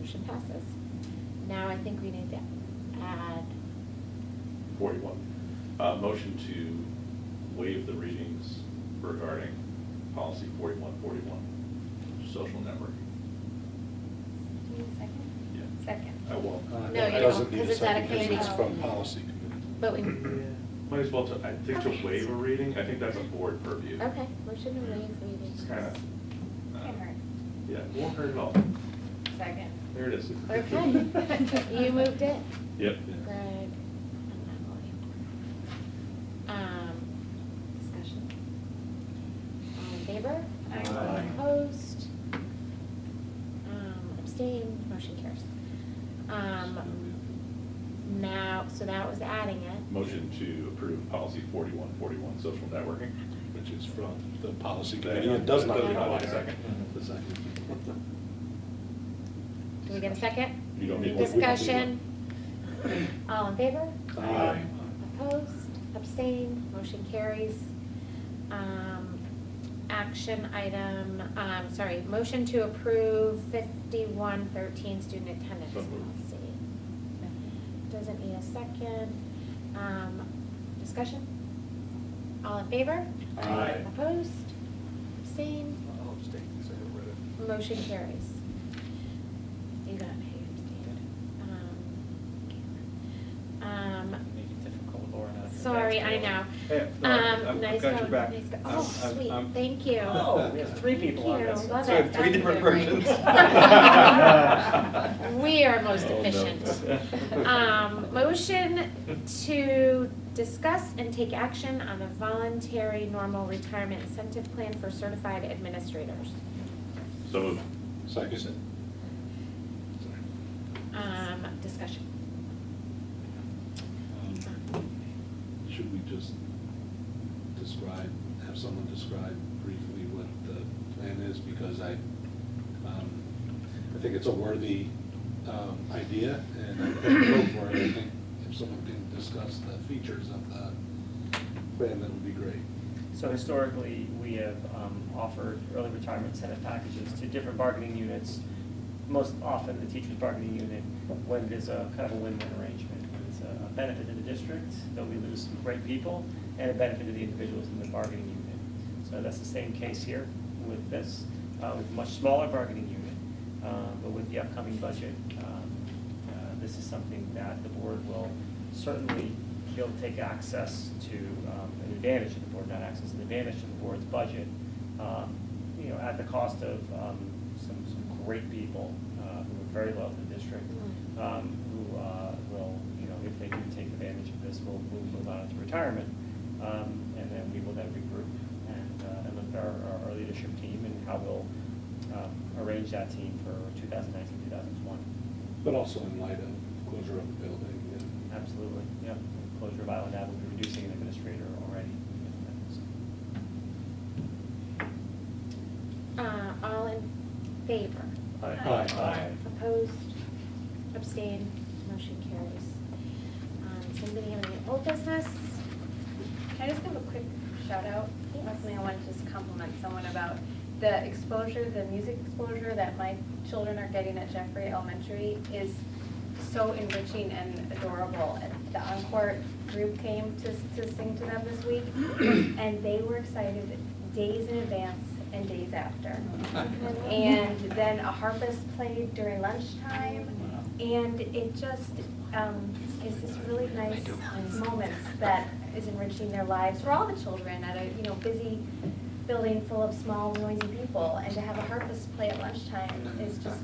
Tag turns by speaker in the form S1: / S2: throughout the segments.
S1: motion passes. Now I think we need to add,
S2: Forty-one, uh, motion to waive the readings regarding policy forty-one forty-one, social network.
S1: do you need a second?
S2: Yeah,
S1: Second.
S2: I will.
S3: Uh,
S1: No,
S3: that
S1: you don't,
S3: doesn't need
S1: 'cause
S3: a
S1: it's out of
S3: second, 'cause
S1: committee.
S3: It's from policy committee.
S1: But we,
S2: Might as well, to- I think to waive a reading, I think that's a board purview.
S1: okay, motion to waive
S2: It's
S1: readings.
S2: kind of.
S4: Can't hurt.
S2: Yeah, it won't hurt at all.
S4: Second.
S2: There it is.
S1: Okay, you moved it.
S2: Yep.
S1: Greg. and Emily. Um, discussion. All in favor?
S4: Aye.
S3: Aye.
S1: Opposed? Um, abstained, motion carries. Um, now, so that was adding it.
S2: Motion to approve policy forty-one forty-one, social networking,
S3: Which is from the policy committee, it does not
S1: Doesn't
S3: require.
S1: have a
S2: second.
S3: The second.
S1: Do we get a second?
S2: You don't need one.
S1: Discussion. All in favor?
S3: Aye.
S1: Opposed, abstained, motion carries. Um, Action item, um, sorry, motion to approve fifty-one thirteen student attendance
S2: So moved.
S1: policy. Doesn't need a second. Um, Discussion? All in favor?
S3: Aye.
S1: Opposed, abstained,
S3: I'll abstain, because I haven't read it.
S1: Motion carries. You got it, you understand. Um, Um,
S5: Make it difficult, Laura, not to go back
S1: sorry,
S5: to
S1: I
S5: it.
S1: know.
S6: Hey, no, I've-
S1: Um,
S6: I've
S1: nice
S6: got your
S1: going,
S6: back.
S1: nice go-
S6: I'm-
S1: Oh,
S6: I'm-
S1: sweet,
S6: I'm-
S1: thank you.
S5: Oh, we have three
S1: Thank
S5: people on
S1: you,
S5: this.
S1: love
S6: So I have
S1: it.
S6: three
S1: That's
S6: different
S1: really great.
S6: versions.
S1: We are most
S2: Oh, no.
S1: efficient. Um, motion to discuss and take action on the voluntary normal retirement incentive plan for certified administrators.
S2: So moved.
S3: Second.
S1: Um, discussion.
S3: Um, Should we just describe, have someone describe briefly what the plan is? Because I, um, I think it's a worthy, um, idea and I think go for it. I think if someone can discuss the features of the plan, that would be great.
S5: So historically, we have um, offered early retirement incentive packages to different bargaining units. Most often, the teacher's bargaining unit, when it is a kind of a win-win arrangement. when It's a a benefit to the district, though we lose some great people, and a benefit to the individuals in the bargaining unit. So that's the same case here with this, uh, with much smaller bargaining unit. Uh, But with the upcoming budget, um, uh, This is something that the board will certainly, he'll take access to, um, an advantage of the board, not access, an advantage to the board's budget, um, you know, at the cost of um, some, some great people uh, who are very loyal to the district, um, who uh, will, you know, if they do take advantage of this, will, will move on to retirement. Um, And then we will then regroup and, uh, and look at our, our- our leadership team and how we'll um, arrange that team for 2019, 2020.
S3: But also in light of closure of the building and
S5: Absolutely, yeah. Closure of Island Avenue, we're reducing an administrator already.
S1: Uh, all in favor?
S3: Aye. Aye.
S1: Opposed? Abstained? Motion carries. Um, Somebody have any old business?
S4: Can I just give a quick shout out?
S1: Yes.
S4: Leslie, I want to just compliment someone about the exposure, the music exposure that my children are getting at Jeffrey Elementary is so enriching and adorable. And The Encore group came to, to sing to them this week, and they were excited days in advance and days after. And then a harpist played during lunchtime, and it just um, is this really nice moments that is enriching their lives for all the children at a, you know, busy building full of small noisy people, and to have a harpist play at lunchtime is just,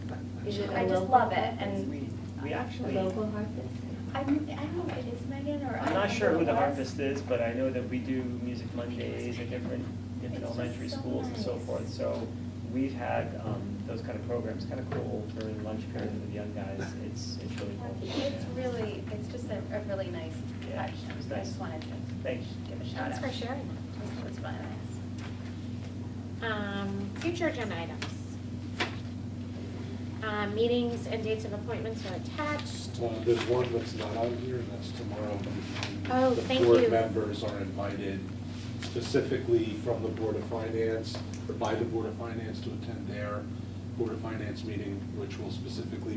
S1: Is it a
S4: I just
S1: local
S4: love it,
S1: harpist?
S4: and
S5: We actually,
S1: Local harpist?
S4: I, I don't know if it is Megan or I
S5: I'm not
S4: don't
S5: sure
S4: know
S5: who the
S4: it was.
S5: harpist is, but I know that we do Music Mondays at different, different
S4: It's just
S5: elementary
S4: so
S5: schools and so
S4: nice.
S5: forth. So we've had um, those kind of programs, kind of cool during lunch period with the young guys. It's, it's really cool.
S4: It's
S5: Yeah.
S4: really, it's just a, a really nice
S5: Yeah,
S4: touch,
S5: it's
S4: I
S5: nice.
S4: just wanted to
S5: Thanks.
S4: give a shout
S1: Thanks
S4: out.
S1: for sharing
S4: It was really nice.
S1: that. Um, Future agenda items. Uh, Meetings and dates of appointments are attached.
S3: Uh, There's one that's not on here, and that's tomorrow.
S1: Oh, thank
S3: The
S1: you.
S3: board members are invited specifically from the Board of Finance, or by the Board of Finance, to attend their Board of Finance meeting, which will specifically